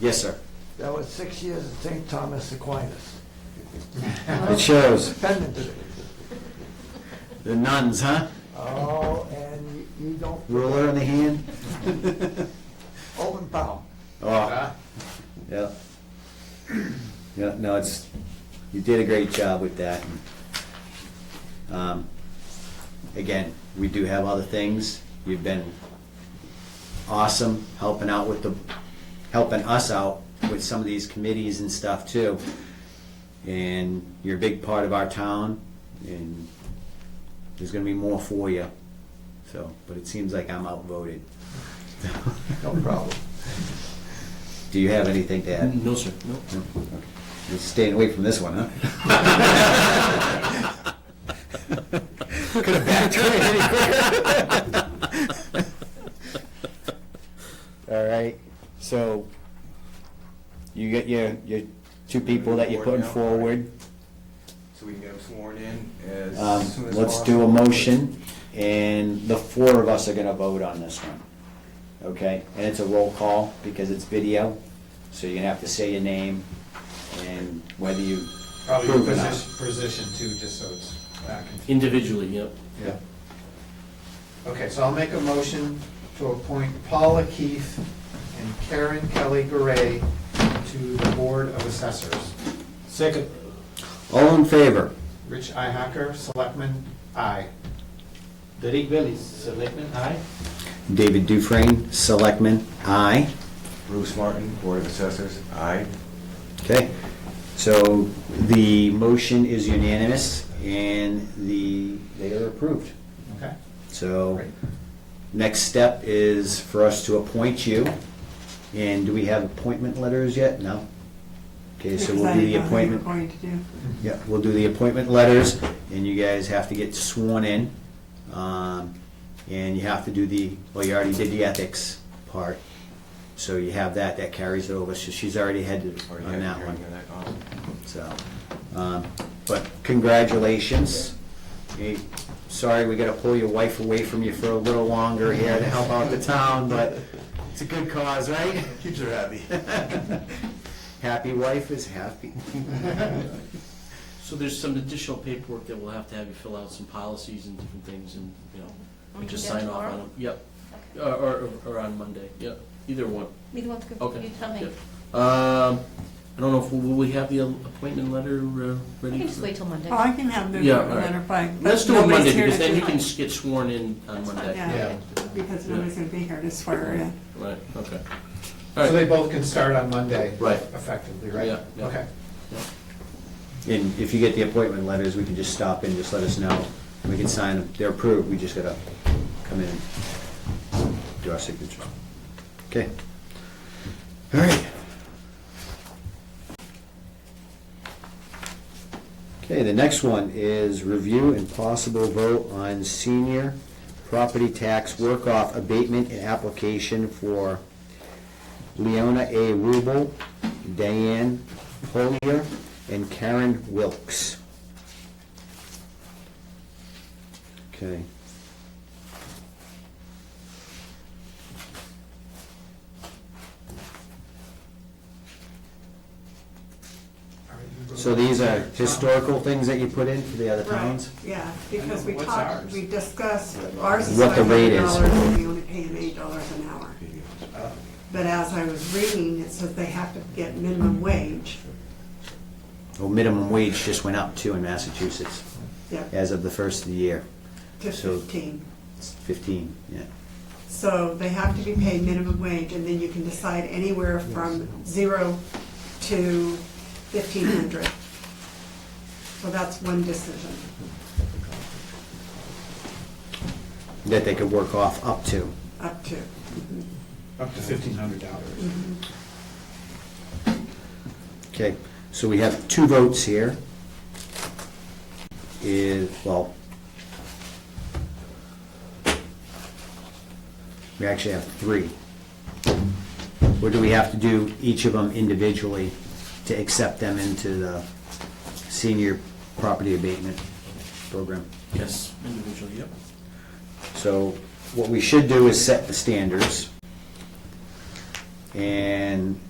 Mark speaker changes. Speaker 1: Yes, sir.
Speaker 2: That was six years at St. Thomas Aquinas.
Speaker 1: It shows.
Speaker 2: Defendant.
Speaker 1: The nuns, huh?
Speaker 2: Oh, and you- you don't,
Speaker 1: Ruler in the hand?
Speaker 2: open palm.
Speaker 1: Oh, yeah. Yeah, no, it's, you did a great job with that. Um, Again, we do have other things. You've been awesome helping out with the, helping us out with some of these committees and stuff too. And you're a big part of our town and there's gonna be more for you. So, but it seems like I'm outvoted.
Speaker 2: No problem.
Speaker 1: Do you have anything to add?
Speaker 3: No, sir. No.
Speaker 1: You're staying away from this one, huh? Could have backtracked any quicker. All right, so you get your, your two people that you're putting forward.
Speaker 4: So we can get them sworn in as
Speaker 1: Um,
Speaker 4: soon as possible.
Speaker 1: Let's do a motion, and the four of us are gonna vote on this one. Okay, and it's a roll call because it's video, so you're gonna have to say your name and whether you
Speaker 5: Probably
Speaker 1: approve or not.
Speaker 5: position, position two, just so it's back and.
Speaker 3: Individually, yep.
Speaker 5: Yeah. Okay, so I'll make a motion to appoint Paula Keith and Karen Kelly Garay to the Board of Assessors.
Speaker 4: Second.
Speaker 1: All in favor?
Speaker 5: Rich Ihacker, Selectman, aye.
Speaker 4: Derek Bellis, Selectman, aye.
Speaker 1: David Dufrain, Selectman, aye.
Speaker 4: Bruce Martin, Board of Assessors, aye.
Speaker 1: Okay, so the motion is unanimous, and the, they are approved.
Speaker 5: Okay?
Speaker 1: So,
Speaker 5: Great.
Speaker 1: next step is for us to appoint you, and do we have appointment letters yet? No? Okay, so
Speaker 6: Because
Speaker 1: we'll
Speaker 6: I
Speaker 1: do
Speaker 6: didn't
Speaker 1: the
Speaker 6: know what you were
Speaker 1: appointment,
Speaker 6: going to do.
Speaker 1: yeah, we'll do the appointment letters, and you guys have to get sworn in. Um, And you have to do the, well, you already did the ethics part, so you have that, that carries it over, so she's already headed on that one. So, um, but congratulations. Eh, Sorry, we gotta pull your wife away from you for a little longer here to help out the town, but it's a good cause, right?
Speaker 4: Keeps her happy.
Speaker 1: Happy wife is happy.
Speaker 3: So there's some additional paperwork that we'll have to have you fill out, some policies and different things, and, you know,
Speaker 7: We
Speaker 3: and just
Speaker 7: can do it
Speaker 3: sign off on
Speaker 7: tomorrow?
Speaker 3: them. Yep,
Speaker 7: Okay.
Speaker 3: or, or, or on Monday, yep, either one,
Speaker 7: Neither one's good,
Speaker 3: okay.
Speaker 7: you tell me.
Speaker 3: Yep. Um, I don't know if, will we have the appointment letter uh,
Speaker 7: We
Speaker 3: ready?
Speaker 7: can just
Speaker 3: for-
Speaker 7: wait till Monday.
Speaker 6: Oh, I can have the
Speaker 3: Yeah, all right.
Speaker 6: letter by. but
Speaker 3: Let's do it
Speaker 6: nobody's
Speaker 3: Monday,
Speaker 6: here
Speaker 3: because
Speaker 6: to
Speaker 3: then
Speaker 6: do
Speaker 3: you
Speaker 6: it.
Speaker 3: can s- get sworn in on
Speaker 7: That's fine,
Speaker 3: Monday.
Speaker 6: Yeah,
Speaker 5: Yeah.
Speaker 6: because nobody's gonna be here to swear in.
Speaker 3: Right, okay. All
Speaker 5: So they
Speaker 3: right,
Speaker 5: both can start on Monday.
Speaker 3: Right.
Speaker 5: Effectively, right?
Speaker 3: Yeah, yeah.
Speaker 5: Okay.
Speaker 1: And if you get the appointment letters, we can just stop and just let us know. We can sign them, they're approved, we just gotta come in and do our signature. Okay. All right. Okay, the next one is review and possible vote on senior property tax work-off abatement and application for Leona A. Rubel, Diane Polier, and Karen Wilkes. Okay. So these are historical things that you put in for the other towns?
Speaker 6: Yeah, because we
Speaker 5: What's
Speaker 6: talked,
Speaker 5: ours?
Speaker 6: we discussed, ours is
Speaker 1: What the
Speaker 6: five
Speaker 1: rate
Speaker 6: hundred
Speaker 1: is.
Speaker 6: dollars, and we only pay them eight dollars an hour. But as I was reading, it says they have to get minimum wage,
Speaker 1: Well, minimum wage just went up too in Massachusetts
Speaker 6: yep,
Speaker 1: as of the first of the year.
Speaker 6: to
Speaker 1: so-
Speaker 6: fifteen.
Speaker 1: It's fifteen, yeah.
Speaker 6: So they have to be paid minimum wage, and then you can decide anywhere from zero to fifteen hundred. So that's one decision.
Speaker 1: That they could work off up to.
Speaker 6: Up to.
Speaker 5: Up to fifteen hundred dollars.
Speaker 1: Okay, so we have two votes here. Is, well, we actually have three. Or do we have to do each of them individually to accept them into the senior property abatement program?
Speaker 3: yes, individually, yep.
Speaker 1: So what we should do is set the standards. And